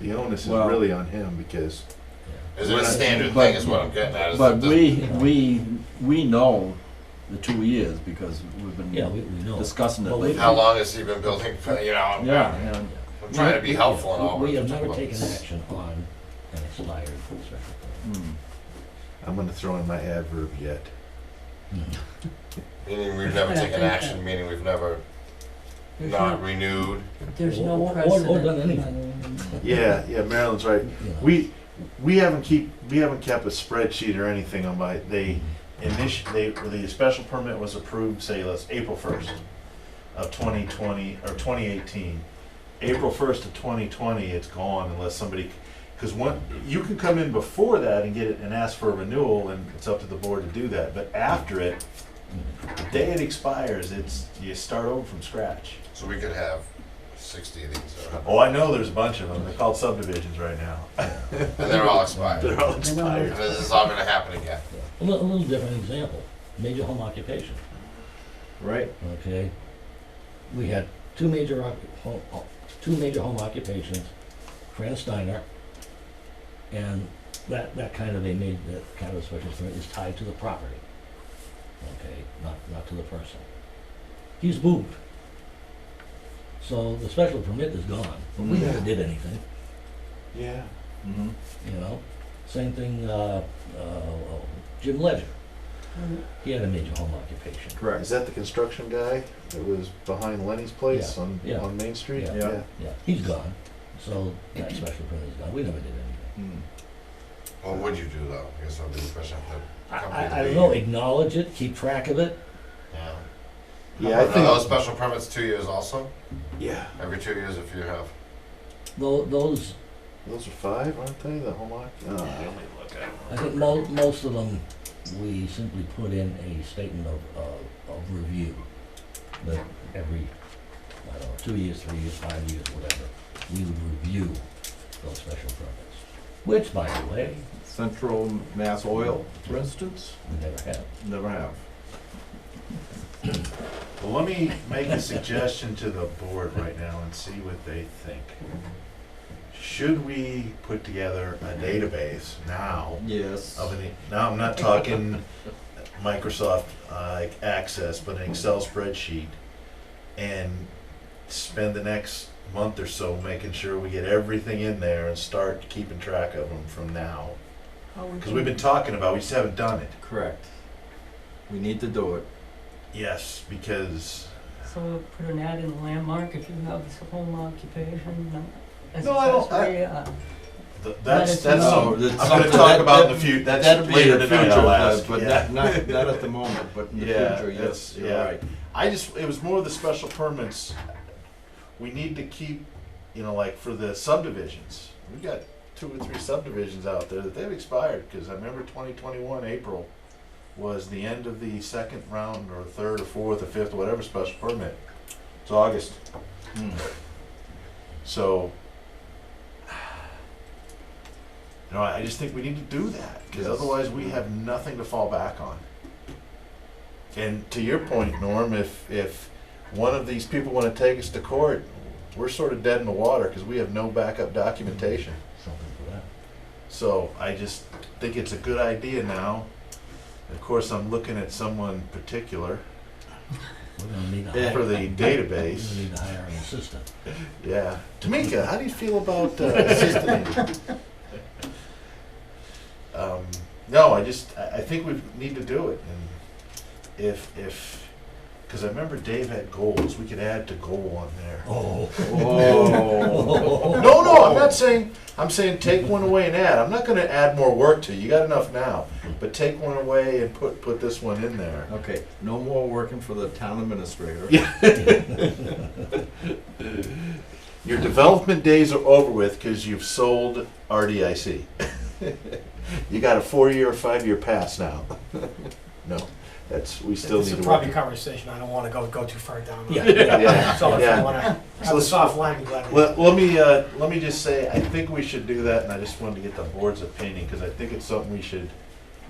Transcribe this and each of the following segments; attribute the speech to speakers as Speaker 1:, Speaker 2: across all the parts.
Speaker 1: the onus is
Speaker 2: Well-
Speaker 1: really on him because
Speaker 3: Is it a standard
Speaker 2: But-
Speaker 3: thing is what I'm getting at? is
Speaker 2: But
Speaker 3: that the-
Speaker 2: we, we, we know the two years because we've
Speaker 4: Yeah, we,
Speaker 2: been
Speaker 4: we know.
Speaker 2: discussing it
Speaker 4: Well, we-
Speaker 2: lately.
Speaker 3: How long has he been building, for- you know, I'm-
Speaker 2: Yeah, and
Speaker 3: I'm trying to be helpful and
Speaker 4: We-
Speaker 3: all.
Speaker 4: We have
Speaker 3: but-
Speaker 4: never taken action on an expired full record.
Speaker 2: mm,
Speaker 1: I'm going to throw in my adverb yet.
Speaker 4: Mm-hmm.
Speaker 3: Meaning we've never taken action, meaning we've never
Speaker 5: There's
Speaker 3: not
Speaker 5: no,
Speaker 3: renewed.
Speaker 5: there's
Speaker 4: Or- or-
Speaker 5: no
Speaker 4: or
Speaker 5: precedent.
Speaker 4: done anything.
Speaker 1: Yeah, yeah, Marilyn's right.
Speaker 4: You know.
Speaker 1: We we haven't keep we haven't kept a spreadsheet or anything on my they initi they the special permit was approved say let's April first of twenty twenty or twenty eighteen. April first of twenty twenty, it's gone unless somebody because one you can come in before that and get it and ask for a renewal and it's up to the board to do that. But after it, the day it expires, it's you start over from scratch.
Speaker 3: So we could have sixty of these, uh, or-
Speaker 1: Oh, I know there's a bunch of them. They're called subdivisions right now.
Speaker 3: and they're all expired.
Speaker 1: They're all
Speaker 3: And
Speaker 1: expired.
Speaker 3: this is all gonna happen again.
Speaker 4: A little, a little different example, major home occupation,
Speaker 1: Right.
Speaker 4: okay? We had two major occu- home, o- two major home occupations, Fran Steiner, and that, that kind of a made, that kind of a special permit is tied to the property. Okay, not, not to the person. He's moved. So the special permit is gone, but we never did anything.
Speaker 1: Yeah.
Speaker 2: mhm.
Speaker 4: You know, same thing, uh, uh, Jim Ledger,
Speaker 5: Mhm.
Speaker 4: he had a major home occupation.
Speaker 1: Is that the construction guy that was behind Lenny's place on,
Speaker 4: yeah.
Speaker 1: on Main Street?
Speaker 4: Yeah.
Speaker 2: Yeah.
Speaker 4: Yeah, he's gone, so that special permit is gone, we never did
Speaker 2: Mm.
Speaker 4: anything.
Speaker 3: What would you do though? I guess that'd be the question.
Speaker 4: I, I, I don't know, acknowledge it, keep track of it,
Speaker 3: Yeah.
Speaker 1: Yeah, I
Speaker 3: Are those
Speaker 1: think,
Speaker 3: special permits two years also?
Speaker 1: yeah,
Speaker 3: Every two years if you have?
Speaker 4: tho- those,
Speaker 1: those are five, aren't they, the home oc? oh.
Speaker 4: I think mo- most of them, we simply put in a statement of, of, of review. That every, I don't know, two years, three years, five years, whatever, we would review those special permits. Which, by the way,
Speaker 2: Central Mass Oil, for instance,
Speaker 4: we never have.
Speaker 2: never have.
Speaker 1: Well, let me make a suggestion to the board right now and see what they think. Mm-hmm. Should we put together a database now
Speaker 2: Yes.
Speaker 1: of an, now I'm not talking Microsoft uh, like Access, but an Excel spreadsheet, and spend the next month or so making sure we get everything in there and start keeping track of them from now.
Speaker 5: Oh, we
Speaker 1: Because we've
Speaker 5: can-
Speaker 1: been talking about, we just haven't done it.
Speaker 2: Correct. We need to do it.
Speaker 1: Yes, because
Speaker 5: So we'll put an ad in the landmark if you have a home occupation, uh, as
Speaker 1: No, I don't- I-
Speaker 5: accessory, uh,
Speaker 1: th- that's
Speaker 5: it's
Speaker 1: that's.
Speaker 5: not-
Speaker 1: some-
Speaker 2: No, that's
Speaker 1: I'm gonna
Speaker 2: something
Speaker 1: talk
Speaker 2: that-
Speaker 1: about in
Speaker 2: that-
Speaker 1: the future. That's
Speaker 2: That'd be
Speaker 1: later
Speaker 2: in the
Speaker 1: tonight.
Speaker 2: future,
Speaker 1: I'll ask.
Speaker 2: but- but
Speaker 1: yeah.
Speaker 2: not, not, not at the moment, but in the
Speaker 1: Yeah,
Speaker 2: future,
Speaker 1: that's-
Speaker 2: yes, you're
Speaker 1: yeah.
Speaker 2: right.
Speaker 1: I just, it was more the special permits. We need to keep, you know, like for the subdivisions, we've got two or three subdivisions out there that they've expired, cause I remember twenty twenty-one, April was the end of the second round or third or fourth or fifth, or whatever special permit. It's August, Hmm.
Speaker 2: Mm.
Speaker 1: so. You know, I I just think we need to do that, cause
Speaker 2: Yes.
Speaker 1: otherwise we have nothing to fall back on. And to your point, Norm, if, if one of these people wanna take us to court, we're sort of dead in the water, cause we have no backup documentation.
Speaker 4: Something for that.
Speaker 1: So I just think it's a good idea now. Of course, I'm looking at someone particular
Speaker 4: We're gonna need a
Speaker 2: Yeah.
Speaker 4: hire,
Speaker 1: for
Speaker 4: we're
Speaker 1: the
Speaker 4: gonna
Speaker 1: database,
Speaker 4: need to hire an assistant.
Speaker 1: yeah. Tamika, how do you feel about uh, assisting? Um, no, I just, I, I think we need to do it, and if, if, cause I remember Dave had goals, we could add to goal on there.
Speaker 4: Oh.
Speaker 2: Oh.
Speaker 1: No, no, I'm not saying, I'm saying take one away and add. I'm not gonna add more work to you. You got enough now. But take one away and put, put this one in there.
Speaker 2: Okay, no more working for the town administrator.
Speaker 1: Yeah. Your development days are over with because you've sold RDIC. You got a four-year or five-year pass now. No, that's, we still
Speaker 6: It's
Speaker 1: need
Speaker 6: a
Speaker 1: to
Speaker 6: private
Speaker 1: work.
Speaker 6: conversation, I don't wanna go, go too far down.
Speaker 4: Yeah.
Speaker 1: Yeah,
Speaker 6: So if
Speaker 1: yeah.
Speaker 6: you wanna
Speaker 1: So
Speaker 6: have a
Speaker 1: let's-
Speaker 6: soft line, I'm glad. we-
Speaker 1: Let, let me, uh, let me just say, I think we should do that and I just wanted to get the board's opinion because I think it's something we should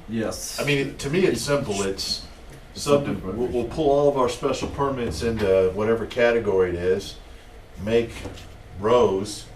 Speaker 2: Yes.
Speaker 1: I mean, it- to me, it's simple, it's subdi, we'll, we'll pull all of our special permits into whatever category it is, make rows,